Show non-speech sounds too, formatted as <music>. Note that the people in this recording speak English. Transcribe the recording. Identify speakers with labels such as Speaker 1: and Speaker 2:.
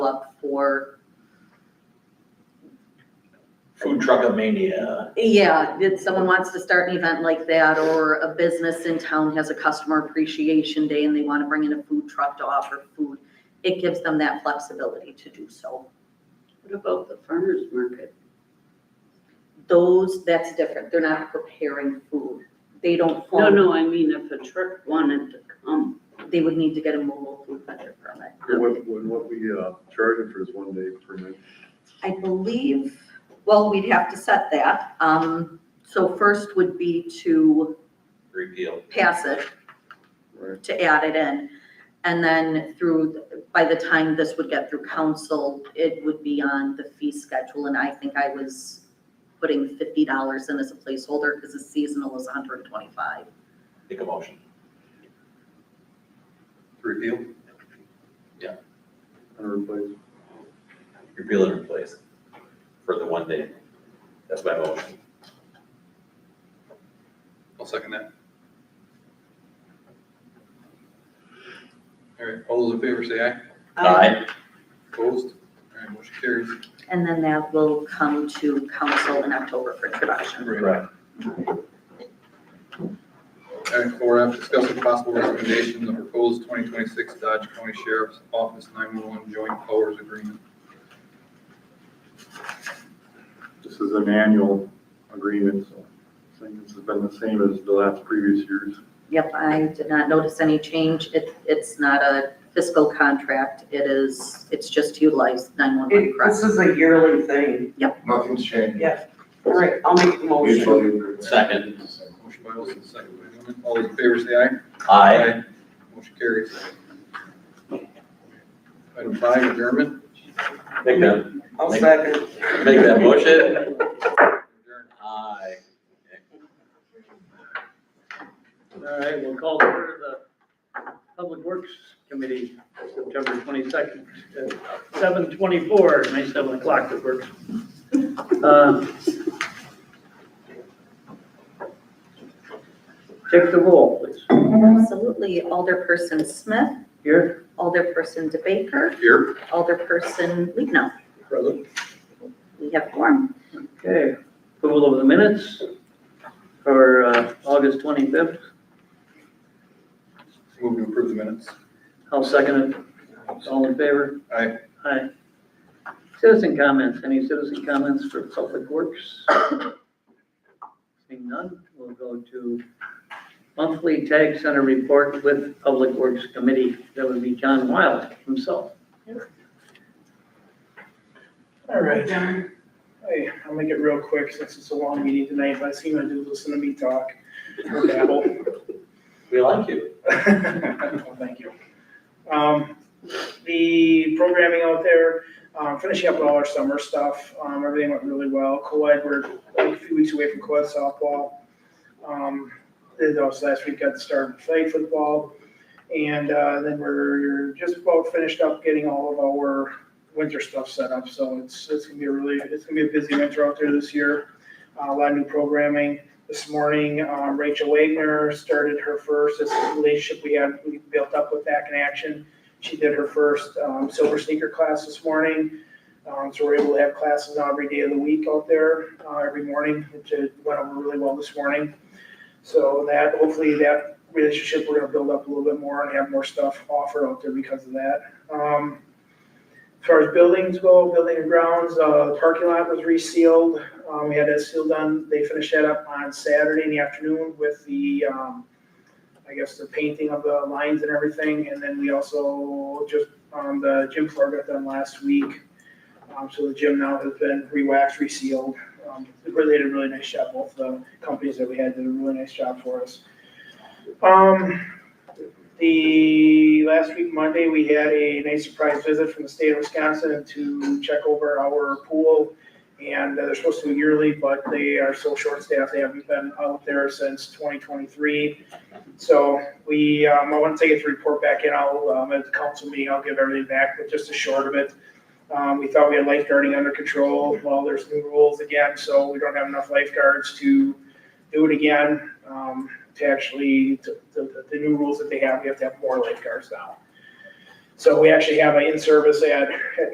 Speaker 1: up for,
Speaker 2: Food truck mania.
Speaker 1: yeah, if someone wants to start an event like that, or a business in town has a customer appreciation day and they want to bring in a food truck to offer food, it gives them that flexibility to do so.
Speaker 3: What about the farmer's market?
Speaker 1: Those, that's different, they're not preparing food, they don't.
Speaker 4: Oh.
Speaker 3: No,
Speaker 1: own-
Speaker 3: no, I mean if a truck wanted to come,
Speaker 1: They would need to get a mobile food vendor permit.
Speaker 5: What, what what we uh, charging for this one day permit?
Speaker 1: I believe, well, we'd have to set that. Um, so first would be to
Speaker 2: Repeal.
Speaker 1: pass it,
Speaker 5: Right.
Speaker 1: to add it in. And then through, by the time this would get through council, it would be on the fee schedule. And I think I was putting fifty dollars in as a placeholder because the seasonal is hundred and twenty-five.
Speaker 2: Make a motion.
Speaker 5: Repeal?
Speaker 2: Yeah.
Speaker 5: And replace?
Speaker 2: Repeal and replace for the one day. That's my motion.
Speaker 6: I'll second that. All right, all those in favor say aye.
Speaker 2: Aye.
Speaker 6: Opposed? All right, motion carries.
Speaker 1: And then that will come to council in October for introduction.
Speaker 2: Right.
Speaker 6: Item four F, discussing possible recommendation of proposed twenty twenty-six Dodge County Sheriff's Office nine-one-one joint powers agreement.
Speaker 5: This is an annual agreement, so I think this has been the same as the last previous years.
Speaker 1: Yep, I did not notice any change. It, it's not a fiscal contract. It is, it's just to utilize nine-one-one,
Speaker 4: It, this
Speaker 1: correct?
Speaker 4: is a yearly thing,
Speaker 7: Nothing's changed.
Speaker 4: yeah. All right, I'll make the motion.
Speaker 7: Mutually agreed.
Speaker 2: Second.
Speaker 6: Motion by Olson, second by Newman. All those in favor say aye.
Speaker 2: Aye.
Speaker 6: Motion carries. Item five, adjournment.
Speaker 2: Make that,
Speaker 4: I'll second.
Speaker 2: make that motion.
Speaker 6: Adjourn.
Speaker 2: Aye.
Speaker 8: All right, we'll call for the Public Works Committee, September twenty-second, seven twenty-four, nice seven o'clock that works. Uh, Take the roll, please.
Speaker 1: Absolutely. Alderperson Smith,
Speaker 8: Here,
Speaker 1: Alderperson DeBaker,
Speaker 6: Here.
Speaker 1: Alderperson Lino.
Speaker 6: Present.
Speaker 1: We have form.
Speaker 8: okay, approval of the minutes for uh, August twenty-fifth.
Speaker 6: Move to approve the minutes.
Speaker 8: I'll second it. All in favor?
Speaker 6: Aye.
Speaker 8: Aye. Citizen comments, any citizen comments for Public Works? Seeing none, we'll go to monthly tag center report with Public Works Committee. That would be John Wild himself.
Speaker 9: All right. Hey, I'll make it real quick since it's a long meeting tonight. Last thing I do is listen to me talk or babble.
Speaker 2: We like you.
Speaker 6: <laughs>
Speaker 9: Well, Thank you. Um, The programming out there, um, finishing up all our summer stuff, um, everything went really well. Co-ed, we're a few weeks away from co-ed softball. Um, Then also last week got the start of flag football. And uh, then we're just about finished up getting all of our winter stuff set up. So it's, it's gonna be a really, it's gonna be a busy winter out there this year. Uh, A lot of new programming this morning, um, Rachel Wagner started her first, this is a relationship we had, we built up with Back in Action. She did her first um, Silver Sneaker class this morning. Um, So we're able to have classes on every day of the week out there, uh, every morning, which uh, went over really well this morning. So that, hopefully that relationship, we're gonna build up a little bit more and have more stuff offered out there because of that. Um, As far as buildings go, building and grounds, uh, the parking lot was resealed. Um, we had that seal done, they finished that up on Saturday in the afternoon with the, um, I guess the painting of the lines and everything, and then we also just, um, the gym floor got done last week. Um, so the gym now has been re-waxed, resealed, um, they really did a really nice job, both the companies that we had did a really nice job for us. Um, the, last week, Monday, we had a nice surprise visit from the state of Wisconsin to check over our pool and uh, they're supposed to do yearly, but they are so short-staffed, they haven't been out there since 2023. So we, um, I want to take it to report back in, I'll, um, at the council meeting, I'll give everything back, but just a short of it. Um, we thought we had lifeguarding under control, well, there's new rules again, so we don't have enough lifeguards to do it again. Um, to actually, to- to- the new rules that they have, we have to have more lifeguards now. So we actually have an in-service at, at